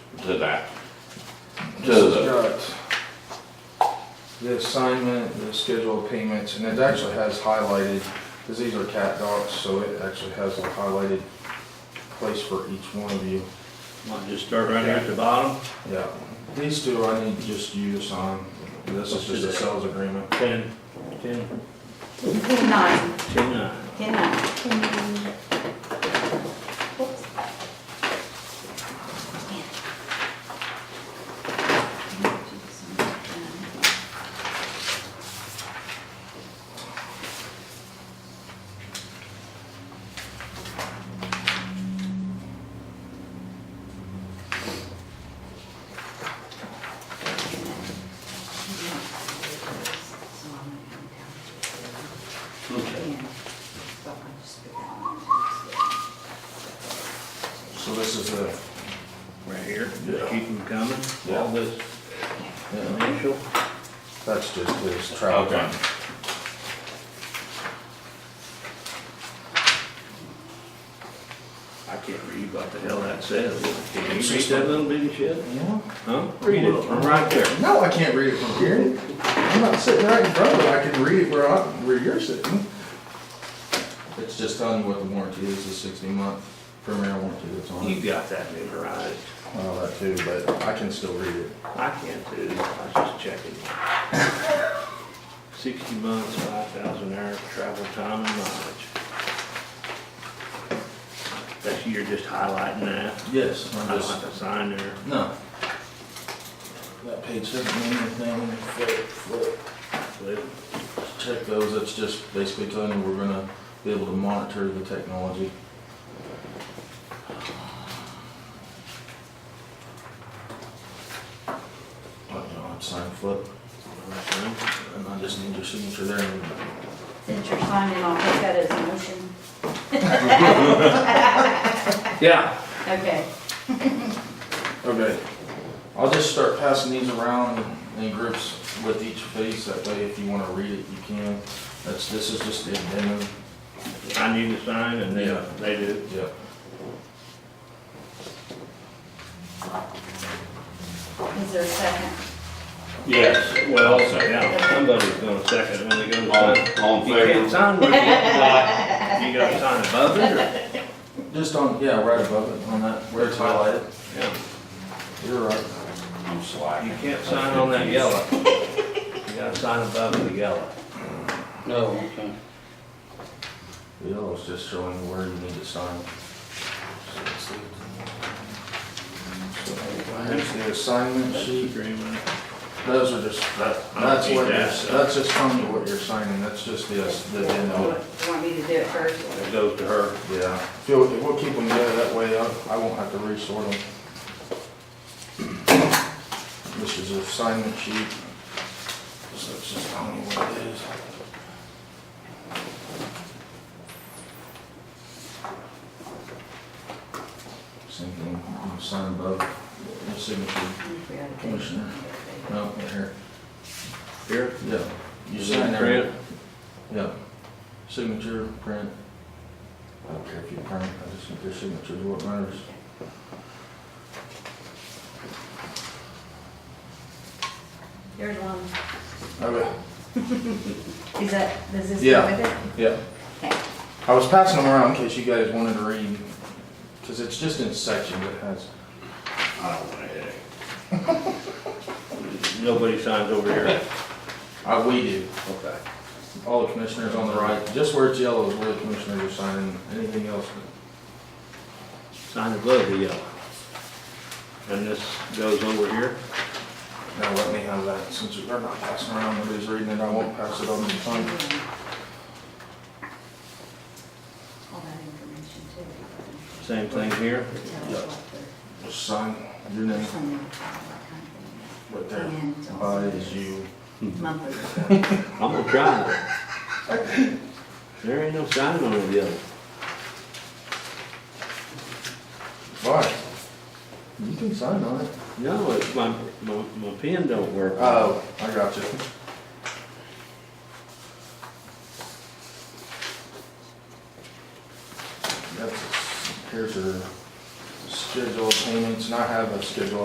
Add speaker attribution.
Speaker 1: to that. To
Speaker 2: This has
Speaker 1: the,
Speaker 2: got the assignment, the schedule of payments, and it actually has highlighted, because these are cat docs, so it actually has a highlighted place for each one of you.
Speaker 3: Might just start right here at the bottom,
Speaker 2: Yeah, these two I need just you to sign. This is just a sales agreement.
Speaker 3: ten, ten,
Speaker 4: Ten nine,
Speaker 3: ten nine.
Speaker 4: ten nine. Oops.
Speaker 2: So this is the,
Speaker 3: Right here,
Speaker 1: Yeah.
Speaker 3: just keep them coming, all
Speaker 1: Yeah.
Speaker 3: this
Speaker 2: yeah,
Speaker 3: initial.
Speaker 2: that's just his travel.
Speaker 1: okay.
Speaker 3: I can't read what the hell that says. Can you read that little bitty shit?
Speaker 2: Yeah.
Speaker 3: Huh? Read it, I'm right there.
Speaker 2: No, I can't read it from here. I'm not sitting right in front of it. I can read it where I, where you're sitting. It's just telling you what the warranty is, the sixty month premier warranty that's on
Speaker 3: You
Speaker 2: it.
Speaker 3: got that memorized.
Speaker 2: All that too, but I can still read it.
Speaker 3: I can't do, it. I was just checking. Sixty months, five thousand hours, travel time and mileage. That's, you're just highlighting that.
Speaker 2: Yes.
Speaker 3: I
Speaker 2: I'm
Speaker 3: don't
Speaker 2: just,
Speaker 3: have to sign there.
Speaker 2: no. That page doesn't mean anything. Flip, flip.
Speaker 3: Flip.
Speaker 2: Check those. It's just basically telling you we're gonna be able to monitor the technology. Oh, you know, it's sign flip. And I just need your signature there. and-
Speaker 4: Since you're signing, I'll take that as a motion.
Speaker 3: Yeah.
Speaker 4: Okay.
Speaker 2: Okay. I'll just start passing these around in groups with each face, that way if you wanna read it, you can. That's, this is just the addendum.
Speaker 3: I need to sign and
Speaker 2: Yeah.
Speaker 3: they, they do.
Speaker 2: Yeah.
Speaker 4: Is there a second?
Speaker 3: Yes, well, yeah, somebody's gonna second when they go to sign.
Speaker 1: All, all in
Speaker 3: You can't
Speaker 1: favor?
Speaker 3: sign, what you
Speaker 1: Aye.
Speaker 3: you gotta sign above it or?
Speaker 2: Just on, yeah, right above it, on that, where it's highlighted.
Speaker 3: Yeah.
Speaker 2: You're right.
Speaker 1: I'm slacking.
Speaker 3: You can't sign on that yellow. You gotta sign above the yellow.
Speaker 5: No, okay.
Speaker 2: The yellow's just showing you where you need to sign. Here's the assignment sheet.
Speaker 3: agreement.
Speaker 2: Those are just, that,
Speaker 3: I don't
Speaker 2: that's
Speaker 3: need
Speaker 2: what, you're-
Speaker 3: that, so-
Speaker 2: that's just telling you what you're signing, that's just the, the
Speaker 4: You
Speaker 2: addendum.
Speaker 4: want- you want me to do it first?
Speaker 3: It goes to her.
Speaker 2: Yeah, if you'll- if we'll keep them together, that way I I won't have to resort them. This is an assignment sheet. So it's just, I don't know what it is. Same thing, you sign above the signature.
Speaker 4: I think we ought to do it.
Speaker 2: Commissioner. No, right here,
Speaker 3: Here?
Speaker 2: yeah. You
Speaker 3: Is
Speaker 2: sign
Speaker 3: it
Speaker 2: there.
Speaker 3: print?
Speaker 2: Yeah. Signature, print. I don't care if you print, I just think your signature is what matters.
Speaker 4: There's one.
Speaker 2: Okay.
Speaker 4: Is that, does this go
Speaker 2: Yeah.
Speaker 4: with it?
Speaker 2: Yeah,
Speaker 4: Okay.
Speaker 2: I was passing them around in case you guys wanted to read, because it's just in sections, it has.
Speaker 3: I don't want a headache. Nobody signs over here.
Speaker 2: Uh, we do,
Speaker 3: Okay.
Speaker 2: all the commissioners on the right, just where it's yellow is where the commissioners are signing, anything else.
Speaker 3: Sign above the yellow. And this goes over here?
Speaker 2: Now let me have that, since they're not passing around, nobody's reading it, I won't pass it on to the
Speaker 4: All
Speaker 2: front.
Speaker 4: that information too.
Speaker 3: Same thing here?
Speaker 4: Tell us what the-
Speaker 2: Just sign your name
Speaker 4: some of the company
Speaker 2: right there.
Speaker 4: And it's also-
Speaker 2: By is you. Mm-hmm.
Speaker 4: Monthly.
Speaker 3: I'm gonna try it. There ain't no sign on the yellow.
Speaker 2: Bye. You can sign on it.
Speaker 3: No, it's my, my, my pen don't work.
Speaker 2: Oh, I got you. That's, here's your schedule of payments, and I have a schedule